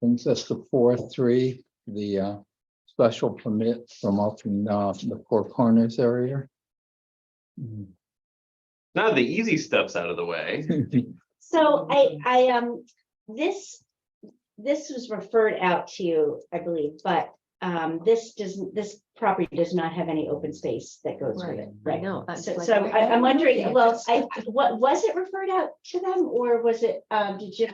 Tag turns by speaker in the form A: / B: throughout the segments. A: brings us to four, three, the uh, special permit from up in uh, the Four Corners area.
B: Now the easy stuff's out of the way.
C: So I, I, um, this, this was referred out to you, I believe, but, um, this doesn't, this property does not have any open space that goes with it,
D: I
C: right?
D: know. I'm
C: So,
D: like,
C: so
D: where-
C: I, I'm wondering,
D: Yeah.
C: well, I, what, was it referred out to them or was it, um, did you?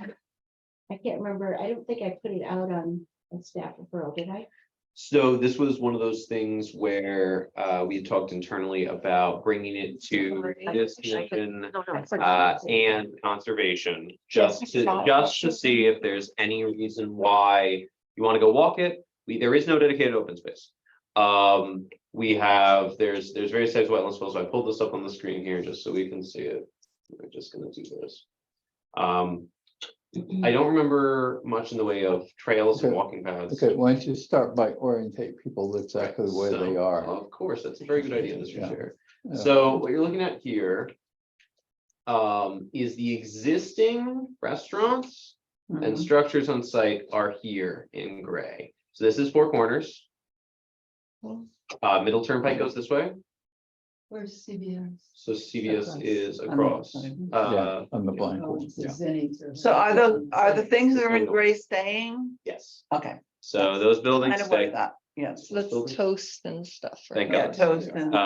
C: I can't remember. I don't think I put it out on on staff referral, did I?
B: So this was one of those things where uh we had talked internally about bringing it to this commission.
D: No, no, it's like-
B: Uh, and conservation, just
C: Yes, I
B: to,
C: saw it.
B: just to see if there's any reason why you want to go walk it. We, there is no dedicated open space. Um, we have, there's, there's various types of wetlands, so I pulled this up on the screen here just so we can see it. We're just gonna do this. Um, I don't remember much in the way of trails and
A: Okay.
B: walking paths.
A: Okay, why don't you start by orientate people exactly where
B: So, um,
A: they are.
B: Of course, that's a very good idea, Mr.
A: Yeah.
B: Chair.
A: Yeah.
B: So what you're looking at here um, is the existing restaurants
A: Mm-hmm.
B: and structures on site are here in gray. So this is Four Corners. Uh, Middle Turnpike goes this way,
E: Where's CBS?
B: so CVS
E: Across.
B: is
E: the
B: across.
E: side.
B: Uh,
A: Yeah, on the blind.
E: Oh,
A: one,
E: it's the
A: yeah.
E: Zinnies or-
F: So are the, are the things that are in
B: Little.
F: gray staying?
B: yes,
F: Okay,
B: so those buildings
F: kind of worried
B: stay.
F: about, yes.
B: Buildings-
G: Let's toast and stuff.
B: Thank
F: Yeah,
B: God.
F: toast and,
B: Uh,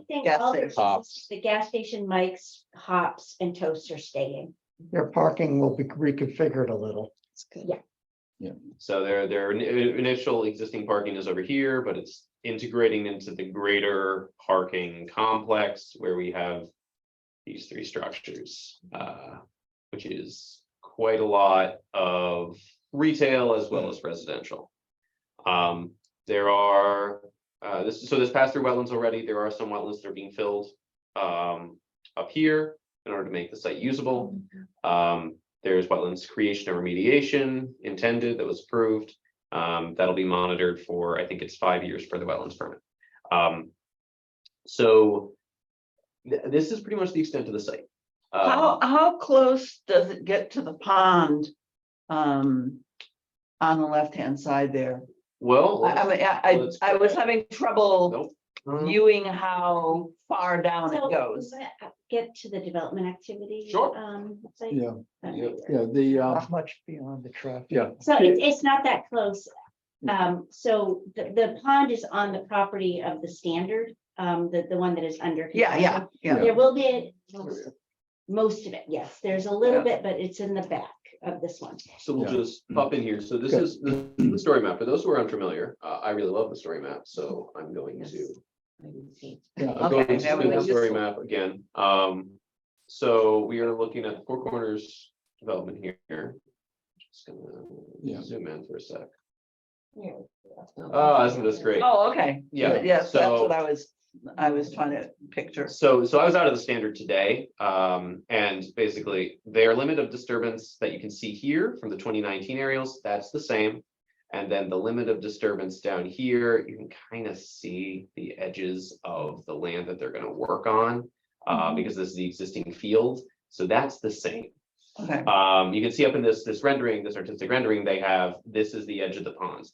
C: I think
F: gas
C: all the-
F: station.
A: Hops.
C: The gas station, Mike's, hops and toast are staying.
H: Their parking will be reconfigured a little.
G: It's good.
B: So their, their in- initial existing parking is over here, but it's integrating into the greater parking complex where we have these three structures, uh, which is quite a lot of retail as well as residential. Um, there are, uh, this, so this pass through wetlands already, there are some wetlands that are being filled, um, up here in order to make the site usable. Um, there's wetlands creation and remediation intended that was approved. Um, that'll be monitored for, I think it's five years for the wetlands permit. Um, so th- this is pretty much the extent of the site. Uh,
F: How, how close does it get to the pond? Um, on the left-hand side there?
B: Well.
F: I, I mean, I, I I was having trouble
B: Nope. Um,
F: viewing how far down
C: So,
F: it goes.
C: let- Get to the development activity.
B: Sure.
C: Um, site.
A: Yeah,
C: That
B: Yep.
C: might work.
A: yeah, the, uh,
H: Not much beyond the traffic.
A: yeah, Mm.
C: So it's, it's not that close. Um, so the, the pond is on the property of the standard, um, the, the one that is under.
F: Yeah, yeah,
C: construction.
F: yeah.
C: There will be most of it, yes. There's a little bit, but it's in the back of this one.
B: So we'll
A: Yeah. Mm.
B: just pop in here. So this
A: Okay. Mm.
B: is this is the story map. For those who are unfamiliar, uh, I really love the story map, so I'm going
F: Yes.
B: to.
A: yeah.
B: I'm
F: Okay,
B: going
F: now we
B: to the
F: just-
B: story map again. Um, so we are looking at Four Corners development here. Just
A: Yeah.
B: gonna zoom in for a sec.
C: Yeah.
B: Oh, isn't this great?
F: Oh, okay.
B: Yeah,
F: Yes, that's
B: so-
F: what I was, I was trying to picture.
B: So, so I was out of the standard today, um, and basically their limit of disturbance that you can see here from the twenty nineteen aerials, that's the same. And then the limit of disturbance down here, you can kind of see the edges of the land that they're gonna work on.
F: Mm-hmm.
B: Uh, because this is the existing field, so that's the same.
F: Okay,
B: Um, you can see up in this, this rendering, this artistic rendering, they have, this is the edge of the pond.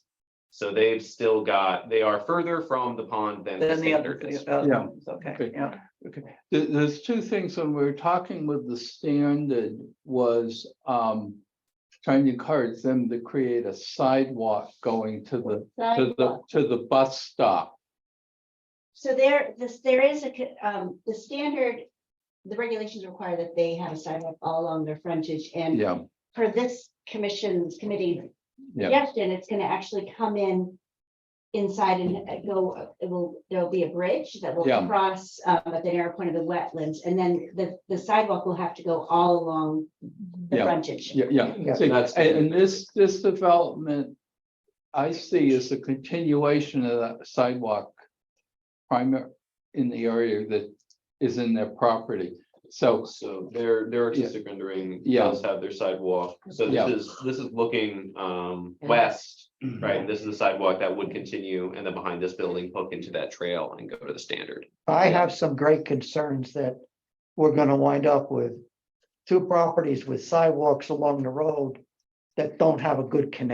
B: So they've still got, they are further from the pond than the
F: then the other,
B: standard
F: the
B: is.
A: Yeah.
F: other, ones, okay,
A: Okay.
F: yeah.
A: Okay, there, there's two things when we were talking with the standard was, um. Trying to encourage them to create a sidewalk going to the, to the, to the bus stop.
C: So there, this, there is a, co- um, the standard, the regulations require that they have a sidewalk all along their frontage and
A: Yeah,
C: for this commission's committee
A: Yeah.
C: suggestion, it's gonna actually come in inside and uh, go, it will, there'll be a bridge that will
A: Yeah.
C: cross um, at the narrow point of the wetlands, and then the, the sidewalk will have to go all along the
A: Yeah.
C: frontage.
A: yeah, yeah.
H: Yeah.
A: See,
B: That's-
A: And, and this, this development. I see is a continuation of that sidewalk. Primary, in the area that is in their property, so,
B: So their, their artistic rendering
A: Yeah.
B: does have their sidewalk, so
A: Yeah.
B: this is, this is looking, um,
F: Yeah.
B: west, right? And This is the sidewalk that would continue, and then behind this building, hook into that trail and go to the standard.
H: I have some great concerns that we're gonna wind up with two properties with sidewalks along the road that don't have a good connection.